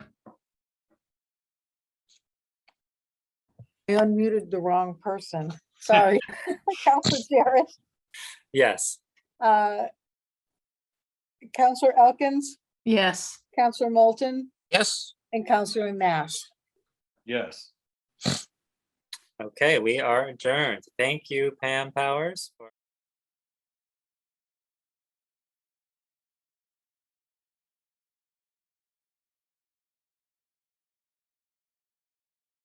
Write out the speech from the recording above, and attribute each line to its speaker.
Speaker 1: I unmuted the wrong person. Sorry. Counselor Jarrett,
Speaker 2: Yes.
Speaker 1: uh, Counselor Elkins,
Speaker 3: Yes.
Speaker 1: Counselor Moulton,
Speaker 2: Yes.
Speaker 1: and Counselor Nash.
Speaker 4: Yes.
Speaker 2: Okay, we are adjourned. Thank you, Pam Powers, for